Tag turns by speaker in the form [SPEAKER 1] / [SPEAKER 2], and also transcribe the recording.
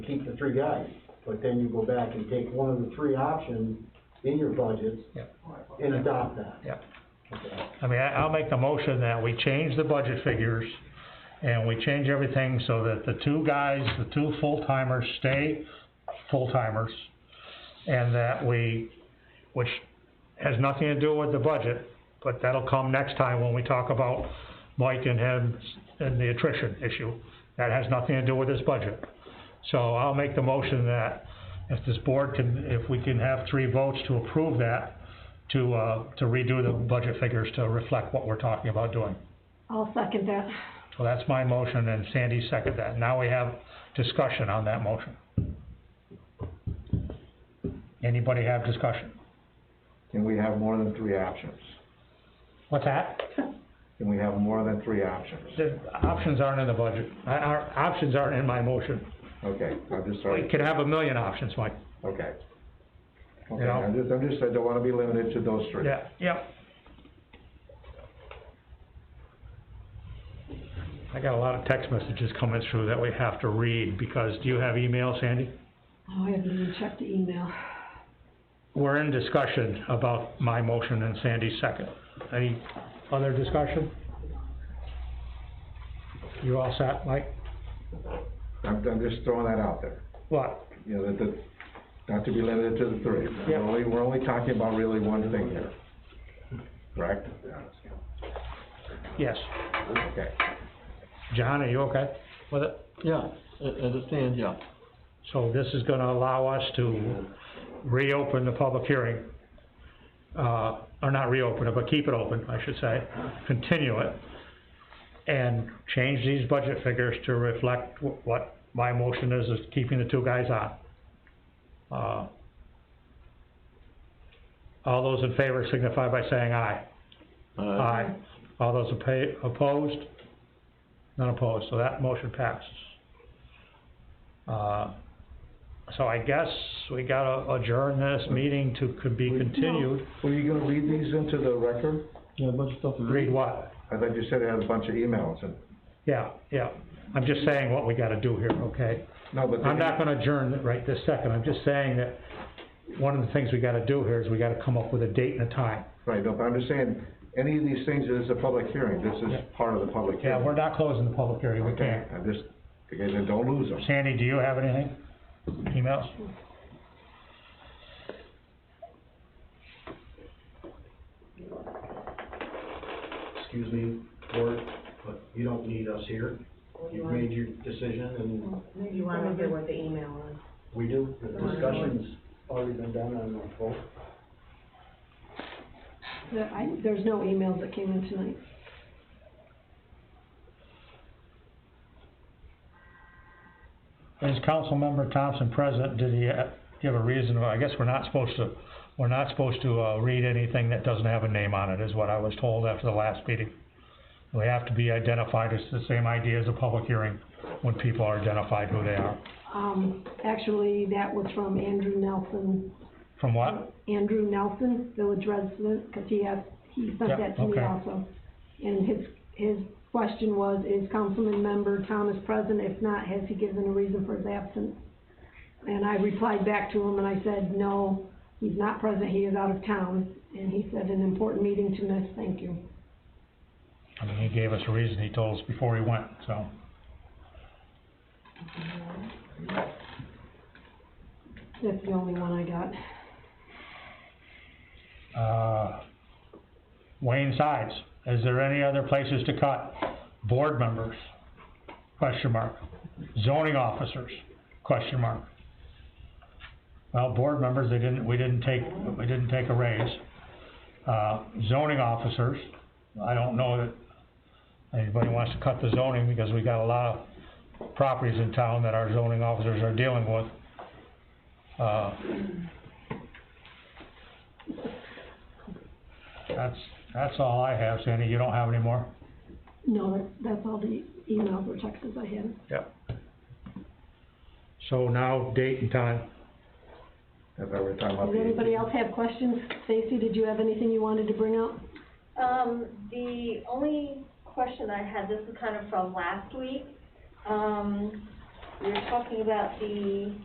[SPEAKER 1] keep the three guys, but then you go back and take one of the three options in your budgets
[SPEAKER 2] Yep.
[SPEAKER 1] and adopt that.
[SPEAKER 2] Yep.
[SPEAKER 1] Okay.
[SPEAKER 2] I mean, I, I'll make the motion that we change the budget figures, and we change everything so that the two guys, the two full-timers stay full-timers, and that we, which has nothing to do with the budget, but that'll come next time when we talk about Mike and him and the attrition issue. That has nothing to do with this budget. So I'll make the motion that if this board can, if we can have three votes to approve that, to, uh, to redo the budget figures to reflect what we're talking about doing.
[SPEAKER 3] I'll second that.
[SPEAKER 2] So that's my motion, and Sandy seconded that. Now we have discussion on that motion. Anybody have discussion?
[SPEAKER 4] Can we have more than three options?
[SPEAKER 2] What's that?
[SPEAKER 4] Can we have more than three options?
[SPEAKER 2] The options aren't in the budget. I- Our, options aren't in my motion.
[SPEAKER 4] Okay, I'm just
[SPEAKER 2] We
[SPEAKER 4] sorry,
[SPEAKER 2] could have a million options, Mike.
[SPEAKER 4] okay. Okay,
[SPEAKER 2] Yeah.
[SPEAKER 4] I'm just, I'm just, I don't wanna be limited to those three.
[SPEAKER 2] Yeah, yep. I got a lot of text messages coming through that we have to read, because, do you have email, Sandy?
[SPEAKER 3] Oh, I haven't even checked the email.
[SPEAKER 2] We're in discussion about my motion and Sandy's second. Any other discussion? You all set, Mike?
[SPEAKER 4] I'm, I'm just throwing that out there,
[SPEAKER 2] What?
[SPEAKER 4] you know, that, that, not to be limited to the three. We're
[SPEAKER 2] Yeah.
[SPEAKER 4] only, we're only talking about really one thing here, correct?
[SPEAKER 2] Yes.
[SPEAKER 4] Okay,
[SPEAKER 2] John, are you okay with it?
[SPEAKER 5] Yeah, I, I understand, yeah.
[SPEAKER 2] So this is gonna allow us to reopen the public hearing. Uh, or not reopen it, but keep it open, I should say, continue it. And change these budget figures to reflect wh- what my motion is, is keeping the two guys on. Uh, All those in favor signify by saying aye.
[SPEAKER 5] Uh,
[SPEAKER 2] Aye. All those appa- opposed? None opposed, so that motion passes. Uh, so I guess we gotta adjourn this meeting to, could be continued.
[SPEAKER 4] were you gonna read these into the record?
[SPEAKER 5] yeah, a bunch of stuff to read.
[SPEAKER 2] Read what?
[SPEAKER 4] I thought you said it had a bunch of emails and,
[SPEAKER 2] Yeah, yeah. I'm just saying what we gotta do here, okay?
[SPEAKER 4] no, but.
[SPEAKER 2] I'm not gonna adjourn it right this second, I'm just saying that one of the things we gotta do here is we gotta come up with a date and a time.
[SPEAKER 4] Right, no, but I'm just saying, any of these things, this is a public hearing, this is part of the public hearing.
[SPEAKER 2] Yeah, we're not closing the public hearing, we
[SPEAKER 4] Okay,
[SPEAKER 2] can't.
[SPEAKER 4] I just, again, then don't lose them.
[SPEAKER 2] Sandy, do you have anything? Emails?
[SPEAKER 1] Excuse me, Court, but you don't need us here. You've made your decision and
[SPEAKER 6] You wanna hear what the email is?
[SPEAKER 1] we do. The discussion's already been done on the vote.
[SPEAKER 3] There, Uh, I, there's no emails that came in tonight.
[SPEAKER 2] Is Councilmember Thompson present, did he uh, give a reason, Well, I guess we're not supposed to, we're not supposed to, uh, read anything that doesn't have a name on it, is what I was told after the last meeting. We have to be identified, it's the same idea as a public hearing, when people are identified who they are.
[SPEAKER 3] Um, actually, that was from Andrew Nelson,
[SPEAKER 2] From what?
[SPEAKER 3] Andrew Nelson, village resident, 'cause he asked, he
[SPEAKER 2] Yeah,
[SPEAKER 3] sent that to me
[SPEAKER 2] okay.
[SPEAKER 3] also. And his, his question was, is councilman member Thomas present? If not, has he given a reason for his absence? And I replied back to him and I said, no, he's not present, he is out of town. And he said, an important meeting to miss, thank you.
[SPEAKER 2] I mean, he gave us a reason, he told us before he went, so.
[SPEAKER 3] That's the only one I got.
[SPEAKER 2] uh, Wayne Sides, is there any other places to cut? Board members, question mark. Zoning officers, question mark. Well, board members, they didn't, we didn't take, we didn't take a raise. Uh, zoning officers, I don't know that anybody wants to cut the zoning because we got a lot of properties in town that our zoning officers are dealing with. Uh, that's, that's all I have, Sandy, you don't have any more?
[SPEAKER 3] No, that's, that's all the emails or texts I had.
[SPEAKER 2] Yep. So now, date and time.
[SPEAKER 4] As I were talking about
[SPEAKER 3] Does
[SPEAKER 4] the,
[SPEAKER 3] anybody else have questions? Stacy, did you have anything you wanted to bring up?
[SPEAKER 7] Um, the only question I had, this is kind of from last week, um, we were talking about the